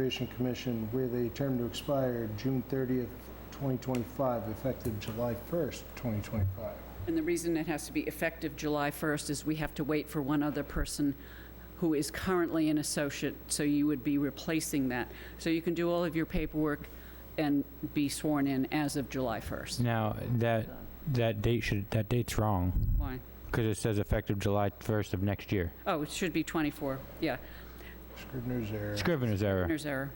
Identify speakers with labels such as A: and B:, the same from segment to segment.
A: Conservation Commission with a term to expire June 30th, 2025, effective July 1st, 2025.
B: And the reason it has to be effective July 1st is we have to wait for one other person who is currently an associate, so you would be replacing that. So you can do all of your paperwork and be sworn in as of July 1st.
C: Now, that, that date should, that date's wrong,
B: Why?
C: because it says effective July 1st of next year.
B: Oh, it should be 24, yeah,
A: Scrivener's error.
C: Scrivener's error.
B: there's error.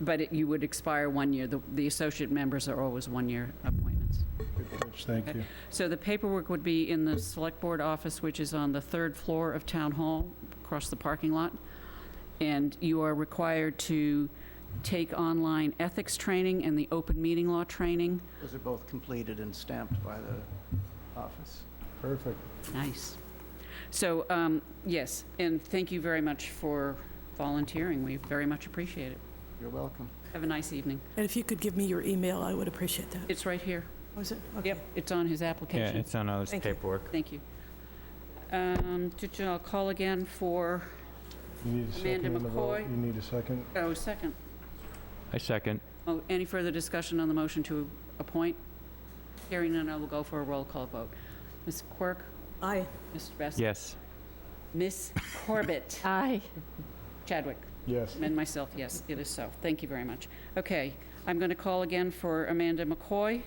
B: But it- you would expire one year, the the associate members are always one-year appointments.
A: Good catch, Thank you.
B: So the paperwork would be in the Select Board office, which is on the third floor of Town Hall, across the parking lot. And you are required to take online ethics training and the open meeting law training.
D: Those are both completed and stamped by the office.
A: Perfect.
B: Nice. So, um, yes, and thank you very much for volunteering. We very much appreciate it.
D: You're welcome.
B: Have a nice evening.
E: And if you could give me your email, I would appreciate that.
B: It's right here.
E: Was it? Okay.
B: Yep, it's on his
C: Yeah,
B: application.
C: it's on all this
E: Thank you.
C: paperwork.
B: Thank you. Um, I'll call again for,
A: You need a second
B: Amanda
A: on the vote.
B: McCoy.
A: You need a second?
B: oh, second.
C: I second.
B: Oh, any further discussion on the motion to appoint? Hearing none, I will go for a roll call vote. Ms. Quirk?
E: Aye.
B: Mr. Best?
C: Yes.
B: Ms. Corbett?
F: Aye.
B: Chadwick?
A: Yes.
B: And myself, yes, it is so. Thank you very much. Okay, I'm going to call again for Amanda McCoy.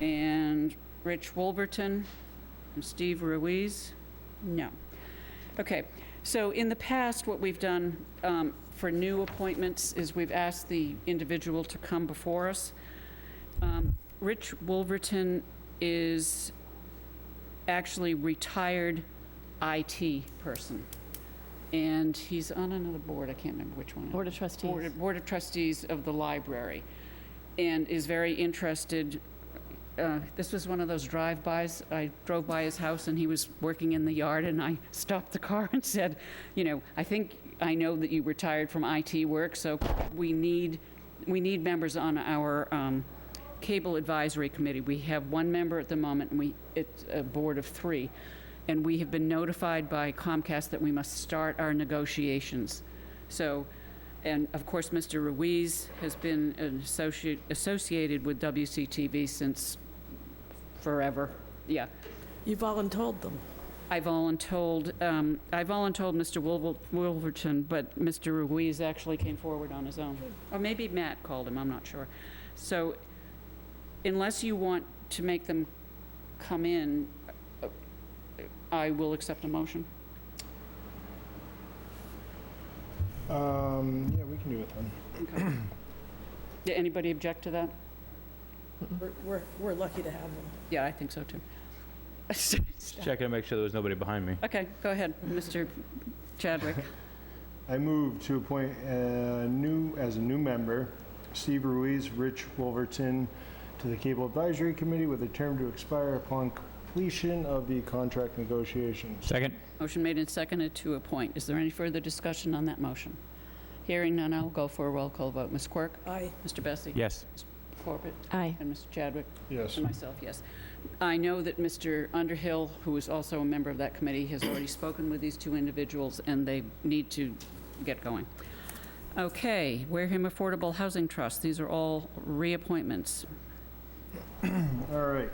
B: And Rich Wolverton and Steve Ruiz? No. Okay, so in the past, what we've done um, for new appointments is we've asked the individual to come before us. Um, Rich Wolverton is actually retired IT person, and he's on another board, I can't remember which one.
F: Board of Trustees.
B: Board of- Board of Trustees of the library, and is very interested. uh, This was one of those drive-bys. I drove by his house, and he was working in the yard, and I stopped the car and said, you know, I think, I know that you retired from IT work, so we need, we need members on our um, Cable Advisory Committee. We have one member at the moment, and we, it's a board of three. And we have been notified by Comcast that we must start our negotiations. So, and of course, Mr. Ruiz has been an associate, associated with WCTV since forever. Yeah.
E: You voluntold them.
B: I voluntold, um, I voluntold Mr. Wilver- Wilverton, but Mr. Ruiz actually came forward on his own. Or maybe Matt called him, I'm not sure. So unless you want to make them come in, uh, I will accept a motion.
A: Um, yeah, we can do it then.
B: Okay. Did anybody object to that?
E: We're- We're, we're lucky to have them.
B: Yeah, I think so too.
C: Just Checking to make sure there was nobody behind me.
B: Okay, go ahead, Mr. Chadwick.
A: I move to appoint a new, as a new member, Steve Ruiz, Rich Wolverton, to the Cable Advisory Committee with a term to expire upon completion of the contract negotiations.
C: Second?
B: Motion made and seconded to appoint. Is there any further discussion on that motion? Hearing none, I'll go for a roll call vote. Ms. Quirk?
E: Aye.
B: Mr. Bessie?
C: Yes.
B: Corbett?
F: Aye.
B: And Mr. Chadwick?
A: Yes.
B: And myself, yes. I know that Mr. Underhill, who is also a member of that committee, has already spoken with these two individuals, and they need to get going. Okay, Wareham Affordable Housing Trust, these are all reappointments.
A: All right.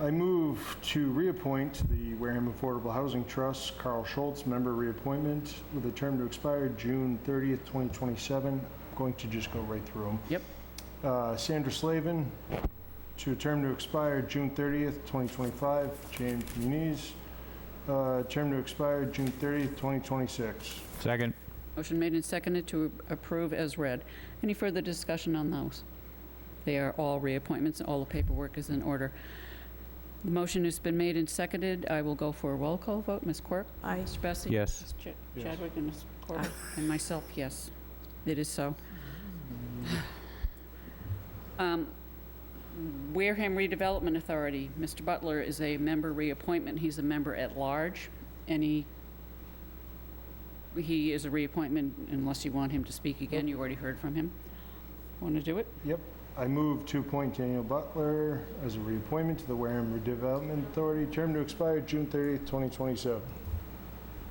A: I move to reappoint the Wareham Affordable Housing Trust, Carl Schultz, member reappointment with a term to expire June 30th, 2027. I'm Going to just go right through them.
B: Yep.
A: Uh, Sandra Slavin, to a term to expire June 30th, 2025. James Muniz, uh, term to expire June 30th, 2026.
C: Second?
B: Motion made and seconded to approve as read. Any further discussion on those? They are all reappointments, all the paperwork is in order. The motion has been made and seconded. I will go for a roll call vote. Ms. Quirk?
E: Aye.
B: Mr. Bessie?
C: Yes.
B: Mr. Ch-
A: Yes.
B: Chadwick and Ms. Corbett? And myself, yes. It is so. Um, Wareham Redevelopment Authority, Mr. Butler is a member reappointment. He's a member at large. Any, he is a reappointment unless you want him to speak again. You already heard from him. Want to do it?
A: Yep. I move to appoint Daniel Butler as a reappointment to the Wareham Redevelopment Authority, term to expire June 30th, 2027.